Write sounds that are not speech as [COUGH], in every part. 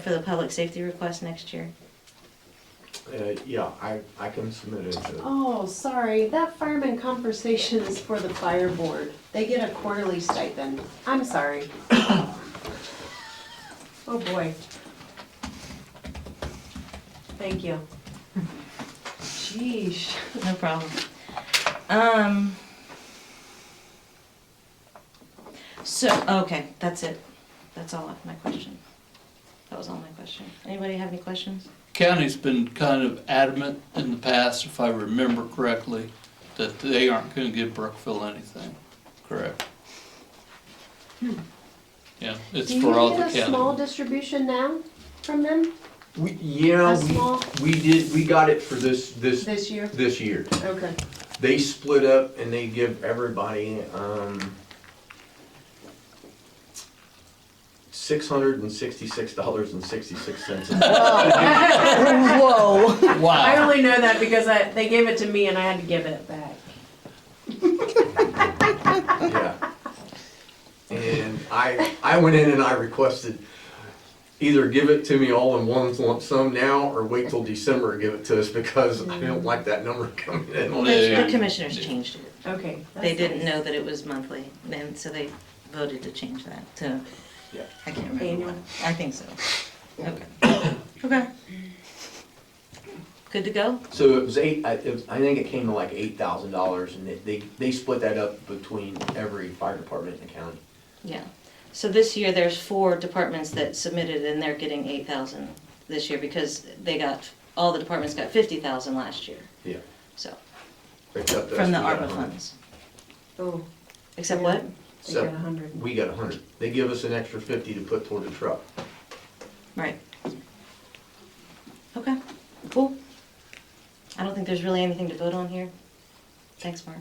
for the public safety request next year? Uh, yeah, I, I can submit it to, Oh, sorry, that fireman conversation is for the fire board. They get a quarterly stipend. I'm sorry. [COUGHS] Oh, boy. Thank you. Sheesh. No problem. Um. So, okay, that's it. That's all of my question. That was all my question. Anybody have any questions? County's been kind of adamant in the past, if I remember correctly, that they aren't gonna give Brookville anything, correct? Yeah, it's for all Hmm. the Do you get a small county. distribution now from them we, A yeah, small- we, we did, we got it for this, this, this year? this year. Okay. They split up and they give everybody, um, six hundred and sixty-six dollars and sixty-six cents. Whoa. [LAUGHS] I Wow, only know that because I, they gave it to me and I had to give it back. Yeah. And I, I went in and I requested either give it to me all in one lump sum now or wait till December and give it to us because I Mm. don't like that number coming in on it. The Yeah. commissioners changed it. Okay. They that's didn't nice. know that it was monthly, and so they voted to change that to, Yeah. I can't remember. Annual. what. I think so. Okay. [COUGHS] Okay. Good to go? So it was eight, I, it was, I think it came to like eight thousand dollars and they, they, they split that up between every fire department in the county. Yeah, so this year, there's four departments that submitted and they're getting eight thousand this year because they got, all the departments got fifty thousand last year, Yeah. so, Except us, from the we got a ARPA hundred. funds. Oh, Except what? they got So, a hundred. we got a hundred. They give us an extra fifty to put toward the truck. Right. Okay, cool. I don't think there's really anything to vote on here. Thanks, Mark.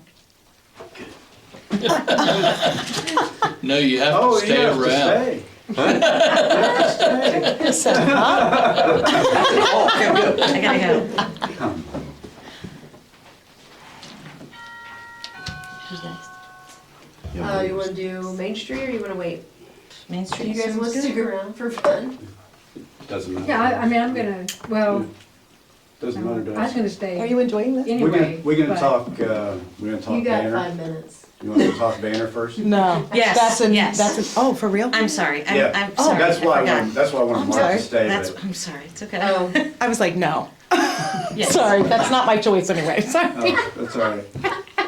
no, Oh, you have to stay around. [LAUGHS] Oh, I gotta go. Who's next? Uh, you wanna do Main Street or you wanna wait? Main Do Street. you guys sounds wanna good. stick around for fun? Doesn't matter. Yeah, I, I mean, I'm gonna, well, Doesn't matter to I was us. gonna Are stay you enjoying this? We're gonna, anyway. we're gonna but- talk, uh, we're gonna You talk got banner. five minutes. You wanna talk banner first? No. Yes, That's an, yes. that's an, oh, for real? I'm sorry, Yeah. I'm, I'm Oh, sorry, I That's why, I forgot. wanted- that's why I wanted I'm Mark sorry. to stay, That's, but I'm sorry, it's okay. Oh, I was like, no. [LAUGHS] Yes. Sorry, that's not my choice anyway. [LAUGHS] Sorry. Oh, that's all right.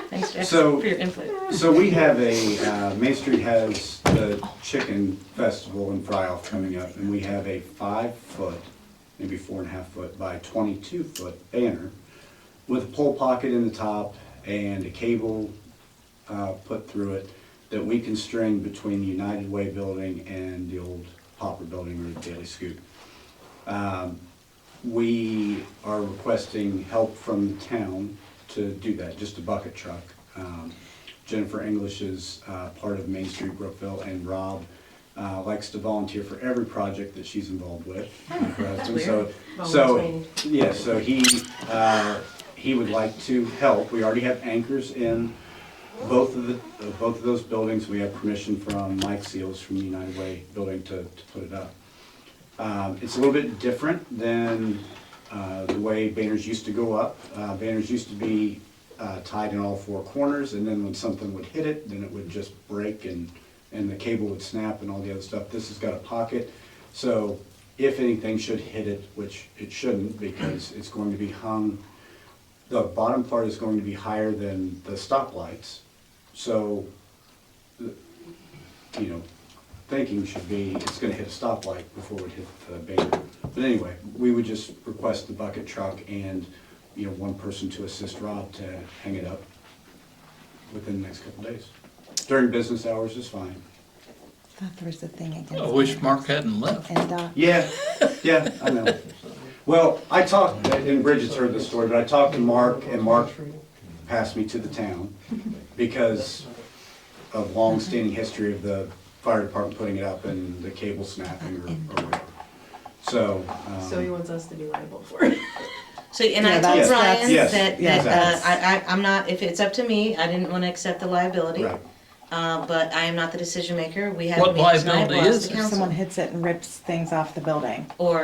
Thanks Jeff, So- for your input. So we have a, uh, Main Street has the Chicken Festival in Fryoff coming up, and we have a five-foot, maybe four and a half foot by twenty-two foot banner with a pole pocket in the top and a cable uh, put through it that we can string between the United Way building and the old Hopper building or the Daily Scoop. Um, We are requesting help from the town to do that, just a bucket truck. Um, Jennifer English is uh, part of Main Street Brookville, and Rob uh, likes to volunteer for every project that she's involved with. Her husband, so- So, Volunteering. yeah, so he, uh, he would like to help. We already have anchors in both of the, uh, both of those buildings. We have permission from Mike Seals from the United Way building to, to put it up. Um, It's a little bit different than uh, the way banners used to go up. Uh, Banners used to be uh, tied in all four corners, and then when something would hit it, then it would just break and, and the cable would snap and all the other stuff. This has got a pocket, so if anything should hit it, which it shouldn't, because it's going to be hung, the bottom part is going to be higher than the stoplights. So you know, thinking should be, it's gonna hit a stoplight before it hit the banner. But anyway, we would just request the bucket truck and, you know, one person to assist Rob to hang it up within the next couple days. During business hours is fine. Thought there was a thing against I wish Mark hadn't left. And, uh, Yeah, yeah, I know. Well, I talked, and Bridget's heard this story, but I talked to Mark, and Mark passed me to the town because of long-standing history of the fire department putting it up and the cable snapping or or whatever. So, so he um, wants us to be liable for it. So, and Yeah, I that's- told Brian that's- Yes, that, yes. that, uh, I, I, I'm not, if it's up to me, I didn't wanna accept the liability. right, Uh, but I am not the decision maker. We have What meetings and I have liability lost is the If council. someone hits it and rips things off the building. Or